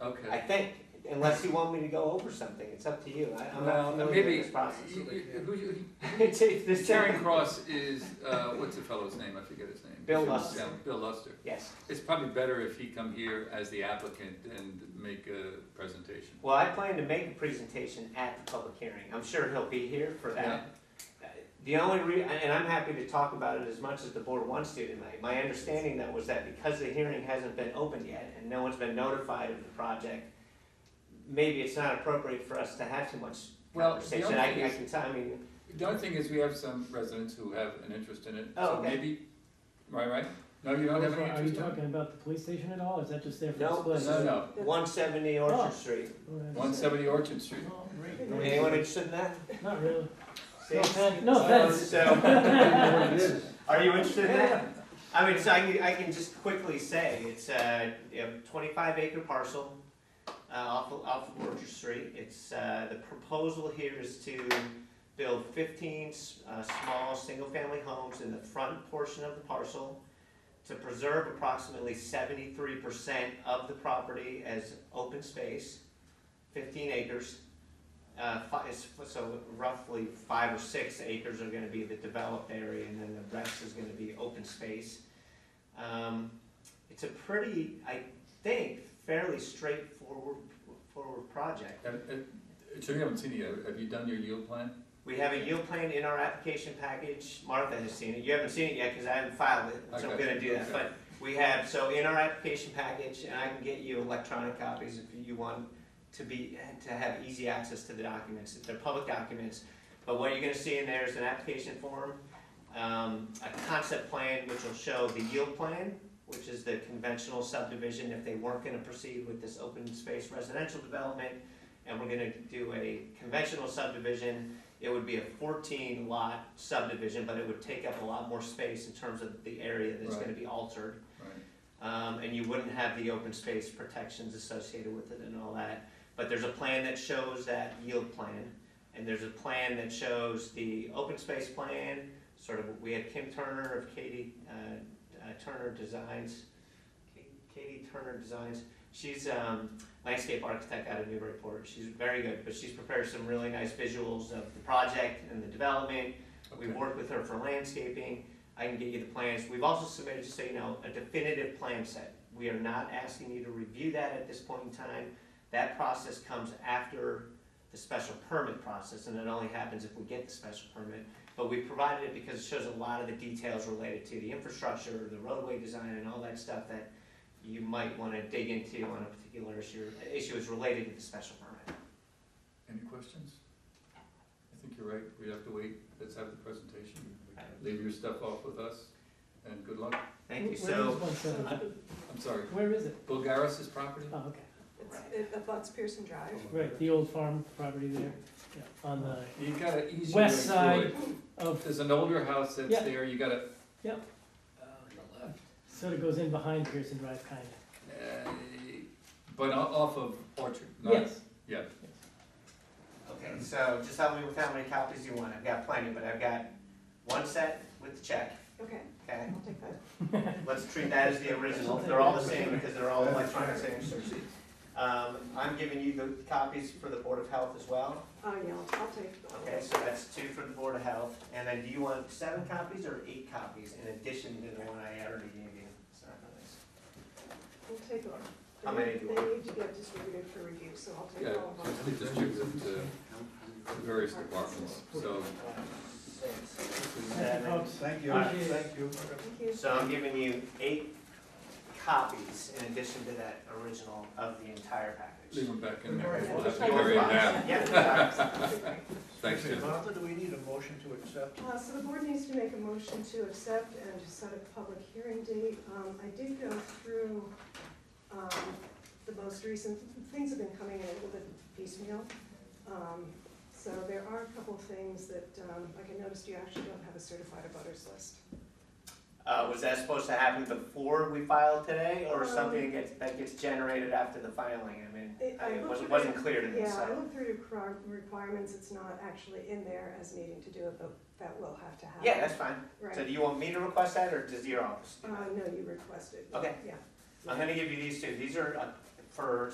Okay. I think, unless you want me to go over something, it's up to you. I, I'm not Well, familiar maybe, with this process. you- you- who you- It's- it's- Charing Cross is, uh, what's the fellow's name? I forget his name. Bill Luster. Yeah, Bill Luster. Yes. It's probably better if he come here as the applicant and make a presentation. Well, I plan to make a presentation at the public hearing. I'm sure he'll be here for that. The only re, and I'm happy to talk about it as much as the board wants to tonight. My understanding though was that because the hearing hasn't been opened yet and no one's been notified of the project, maybe it's not appropriate for us to have too much Well, the conversation. other I, thing I is- can tell, I mean, The other thing is we have some residents who have an interest in it. Oh, So okay. maybe, right, right? No, you don't have any Are you interest in it? talking about the police station at all, is that just there for No, display? this No, no. one seventy Oh. Orchard Street. One seventy Orchard Street. Oh, great. Anyone interested in that? Not really. See? No offense. No Uh, offense. So, It is. are you interested in that? I mean, so I can, I can just quickly say, it's a you know, twenty-five acre parcel, uh, off, of- off of Orchard Street. It's, uh, the proposal here is to build fifteen, s- uh, small, single-family homes in the front portion of the parcel to preserve approximately seventy-three percent of the property as open space, fifteen acres. Uh, fi- it's- so roughly five or six acres are gonna be the developed area, and then the rest is gonna be open space. Um, it's a pretty, I think, fairly straightforward, forward project. And- and- So uh, you haven't seen it yet. Have you done your yield plan? We have a yield plan in our application package, Martha has seen it, you haven't seen it yet, cause I haven't filed it, so I'm Okay, gonna do that, okay. but we have, so in our application package, and I can get you electronic copies if you want to be, to have easy access to the documents, they're public documents, but what you're gonna see in there is an application form, um, a concept plan which will show the yield plan, which is the conventional subdivision, if they weren't gonna proceed with this open space residential development, and we're gonna do a conventional subdivision, it would be a fourteen lot subdivision, but it would take up a lot more space in terms of the area that's gonna be altered. Right. Um, and you wouldn't have the open space protections associated with it and all that. But there's a plan that shows that yield plan, and there's a plan that shows the open space plan, sort of, we had Kim Turner of Katie, uh, uh, Turner Designs. Katie Turner Designs, she's, um, landscape architect out of Newburyport, she's very good, but she's prepared some really nice visuals of the project and the development, We've Okay. worked with her for landscaping, I can get you the plans, we've also submitted, just so you know, a definitive plan set. We are not asking you to review that at this point in time, that process comes after the special permit process, and it only happens if we get the special permit. But we provided it because it shows a lot of the details related to the infrastructure, the roadway design, and all that stuff that you might wanna dig into on a particular issue, issue is related to the special permit. Any questions? I think you're right, we have to wait, let's have the presentation, leave your stuff off with us, and good luck. Thank you, Where is so, one seventy? I'm sorry, Where is it? Bulgaris's property? Oh, okay, Right. It's, it butts Pearson Drive. right, the old farm property there, yeah, on the, oh, You gotta ease your way West through side. it. of, There's an older house that's Yeah. there, you gotta. Yeah. Uh, on the left. sort of goes in behind Pearson Drive, kinda. Uh, But o- off of Orchard, not. Yes, Yeah, Okay, so just help me with how many copies you want, I've got plenty, but I've got one set with the check, Okay, okay? I'll take that. Let's treat that as the original, they're all the same because they're all electronic signatures. Um, I'm giving you the copies for the Board of Health as well, Oh, yeah, I'll- I'll take that. okay, so that's two for the Board of Health, and then do you want seven copies or eight copies in addition to the one I already gave you? It's not really- We'll take them. How They- many do you They want? need to get distributed for review, so I'll take yeah, all of them. it's distributed to various departments, so. thank you, Seven. folks. Thank you, Appreciate it. thank you. Thank you. So I'm giving you eight copies in addition to that original of the entire Leave package. them back in there. Alright. We'll have to carry them down. Yeah, sorry. Thanks, Excuse me, Jim. Martha, do we need a motion to accept? Uh, so the board needs to make a motion to accept and to set a public hearing date. Um, I did go through, um, the most recent, things have been coming in a little bit piecemeal. Um, so there are a couple of things that, um, like I noticed you actually don't have a certified abutters list. Uh, was that supposed to happen before we filed today, or Um, something that gets, that gets generated after the filing, I mean, It- I- I it looked wasn't, at wasn't it. clear to me, Yeah, I so. looked through the requir- requirements, it's not actually in there as needing to do it, but that will have to happen. Yeah, that's fine, so Right, do you want me to request that, or does your office do uh, that? no, you requested. Okay. Yeah. I'm gonna give you these two, these are uh, for